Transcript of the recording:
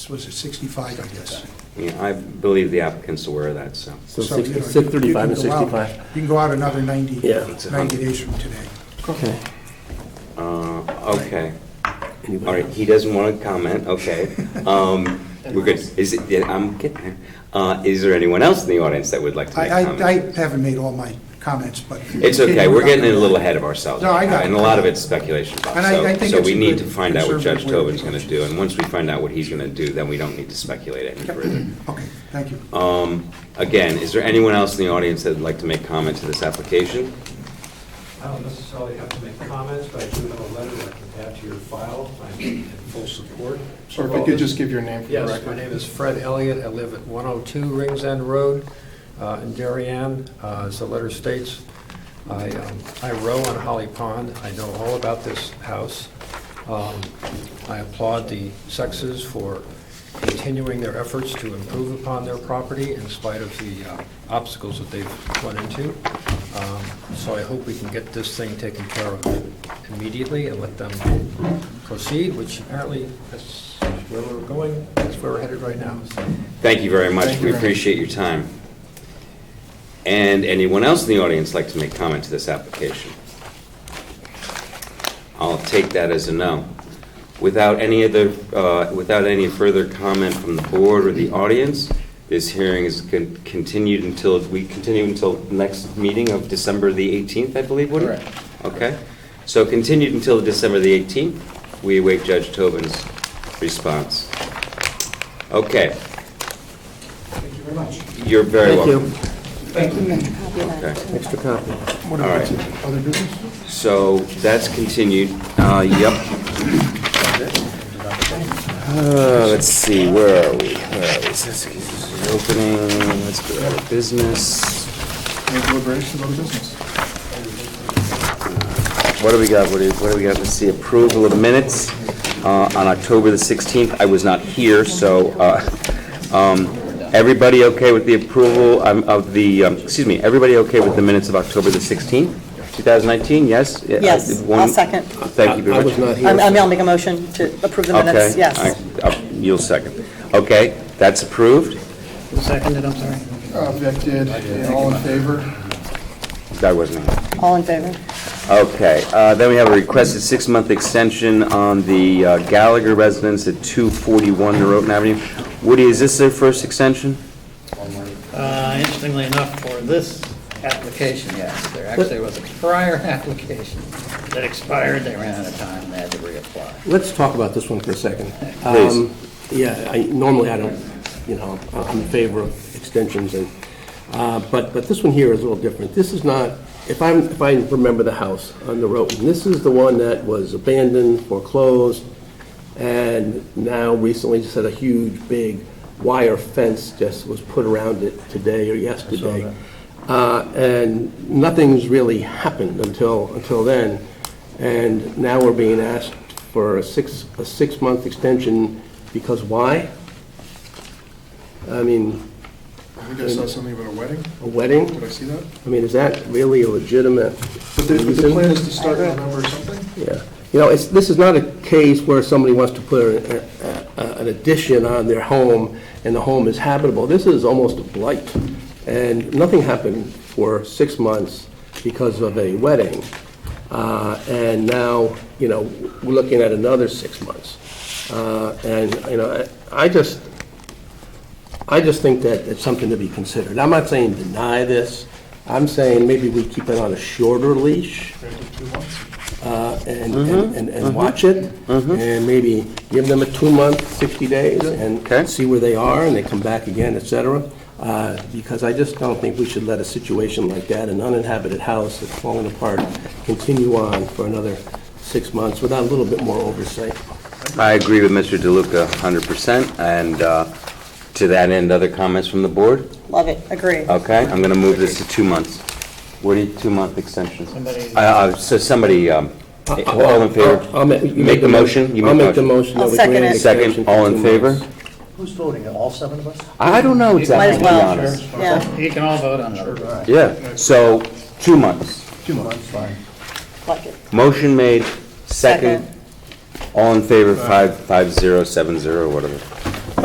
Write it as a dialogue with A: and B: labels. A: This was at 65, I guess.
B: Yeah, I believe the applicant's aware of that, so.
C: So
A: So, you know,
C: six- six
A: you can
C: thirty-five and
A: go out-
C: sixty-five.
A: You can go out another 90,
C: Yeah.
A: 90 days from today.
C: Okay.
B: Uh, Okay,
C: Anybody
B: all right,
C: else?
B: he doesn't want to comment, okay. Um, We're good. Is it, yeah, I'm getting there. Uh, Is there anyone else in the audience that would like to
A: I,
B: make
A: I I
B: comments?
A: haven't made all my comments, but.
B: It's okay, we're getting a little ahead of ourselves.
A: No, I got it.
B: And a lot of it's speculation, Bob,
A: And I- I
B: so,
A: think
B: so
A: it's
B: we
A: a
B: need to
A: good
B: find out what Judge
A: conservative way of
B: Tobin's going to
A: approaching
B: do,
A: it.
B: and once we find out what he's going to do, then we don't need to speculate any further.
A: Okay, thank you.
B: Um, Again, is there anyone else in the audience that'd like to make comment to this application?
D: I don't necessarily have to make comments, but I do have a letter that I can add to your file. I'm in full support.
E: Or if I could just give your name for the record.
D: Yes, my name is Fred Elliott. I live at 102 Rings End Road uh, in Darien. Uh, As the letter states, I um, I row on Holly Pond. I know all about this house. Um, I applaud the sexes for continuing their efforts to improve upon their property in spite of the uh, obstacles that they've run into. Um, So I hope we can get this thing taken care of immediately and let them proceed, which apparently that's where we're going, that's where we're headed right now. So
B: Thank you very much.
E: Thank you
B: We
E: very much.
B: appreciate your time. And anyone else in the audience like to make comment to this application? I'll take that as a no. Without any other, uh, without any further comment from the board or the audience, this hearing is con- continued until, we continue until next meeting of December the 18th, I believe, would it?
E: Correct.
B: Okay. So continued until December the 18th. We await Judge Tobin's response. Okay.
A: Thank you very much.
B: You're very
C: Thank
B: welcome.
C: you.
B: Okay.
C: Extra copy.
A: What
B: All
A: about
B: right.
A: the other business?
B: So that's continued. Uh, Yep. Uh, Let's see, where are we? Where are we? This is Opening, let's go out of business.
E: Any deliberations on business?
B: What do we got? What do what do we got? Let's see, approval of minutes uh, on October the 16th. I was not here, so uh, um, everybody okay with the approval um, of the, um, excuse me, everybody okay with the minutes of October the 16th, 2019? Yes? Yeah, I-
F: Yes, I'll
B: one-
F: second.
B: Thank you very
C: I- I
B: much.
C: was not here.
F: I'm- I'm- I'll make a motion to approve the minutes,
B: Okay.
F: yes.
B: I- uh, You'll second. Okay, that's approved.
E: Uh, Vic did, and all in favor?
B: That wasn't it.
F: All in favor?
B: Okay, uh, then we have a requested six-month extension on the uh, Gallagher residence at 241 Norotan Avenue. Woody, is this their first extension?
G: Uh, Interestingly enough, for this application, yes, there actually was a prior application that expired, they ran out of time, they had to reapply.
C: Let's talk about this one for a second.
B: Please.
C: Um, Yeah, I, normally I don't, you know, I- I'm in favor of extensions and, uh, but, but this one here is a little different. This is not, if I'm, if I remember the house on the road, and this is the one that was abandoned, foreclosed, and now recently just had a huge, big wire fence just was put around it today or yesterday. Uh, And nothing's really happened until, until then. And now we're being asked for a six, a six-month extension because why? I mean,
E: I think I saw something about a wedding.
C: a wedding?
E: Did I see that?
C: I mean, is that really a legitimate
E: But the, but the
C: reason?
E: plan is to start in November or something?
C: Yeah, you know, it's, this is not a case where somebody wants to put a- a- a- an addition on their home and the home is habitable. This is almost a blight. And nothing happened for six months because of a wedding. Uh, And now, you know, we're looking at another six months. Uh, And, you know, I I just, I just think that it's something to be considered. I'm not saying deny this. I'm saying maybe we keep it on a shorter leash uh, and,
B: Mm-hmm.
C: and- and, and watch it, and maybe give them a two-month, 60 days,
B: Okay.
C: and see where they are, and they come back again, et cetera. Uh, Because I just don't think we should let a situation like that, an uninhabited house that's falling apart, continue on for another six months without a little bit more oversight.
B: I agree with Mr. DeLuca 100%, and uh, to that end, other comments from the board?
F: Love it, agree.
B: Okay, I'm going to move this to two months. Woody, two-month extension.
G: Somebody-
B: Uh, uh, So somebody, um, all in favor?
C: I'll- I'll ma- you
B: Make the motion? You
C: I'll make the motion. that
F: I'll
C: we grant
F: second it.
C: an extension
B: Second,
C: for
B: all
C: two
B: in favor?
C: months.
D: Who's voting, all seven of us?
B: I don't know exactly, to be
F: well.
B: honest.
F: Yeah.
G: You can all vote on it.
B: Yeah, so, two months.
E: Two months, fine.
F: Like it.
B: Motion made, second.
F: Second.
B: All in favor, five, five, zero, seven, zero, whatever.